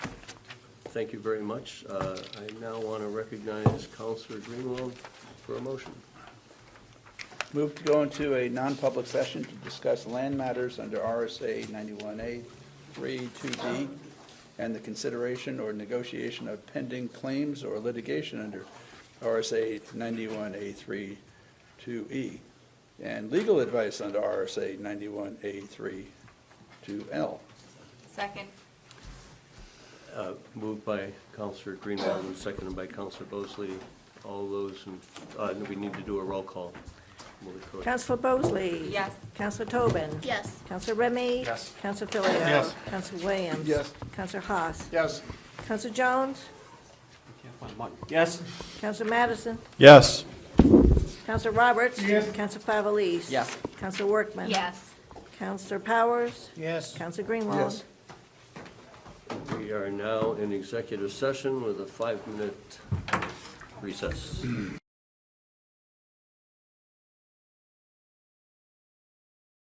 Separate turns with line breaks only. Thank you very much. Uh, I now want to recognize Counselor Greenwald for a motion.
Move to go into a non-public session to discuss land matters under RSA 91A 32D and the consideration or negotiation of pending claims or litigation under RSA 91A 32E E and legal advice under RSA 91A 32L.
Second.
Uh, Moved by Counselor Greenwald and seconded by Counselor Bosley. All those, in- uh, we need to do a roll call. Will it correct?
Counselor Bosley?
Yes.
Counselor Tobin?
Yes.
Counselor Remy?
Yes.
Counselor Filio?
Yes.
Counselor Williams?
Yes.
Counselor Haas?
Yes.
Counselor Jones?
Yes.
Counselor Madison?
Yes.
Counselor Roberts? Yes. Counselor Favelis?
Yes.
Counselor Workman?
Yes.
Counselor Powers?
Yes.
Counselor Greenwald?
Yes.
We are now in executive session with a five-minute recess.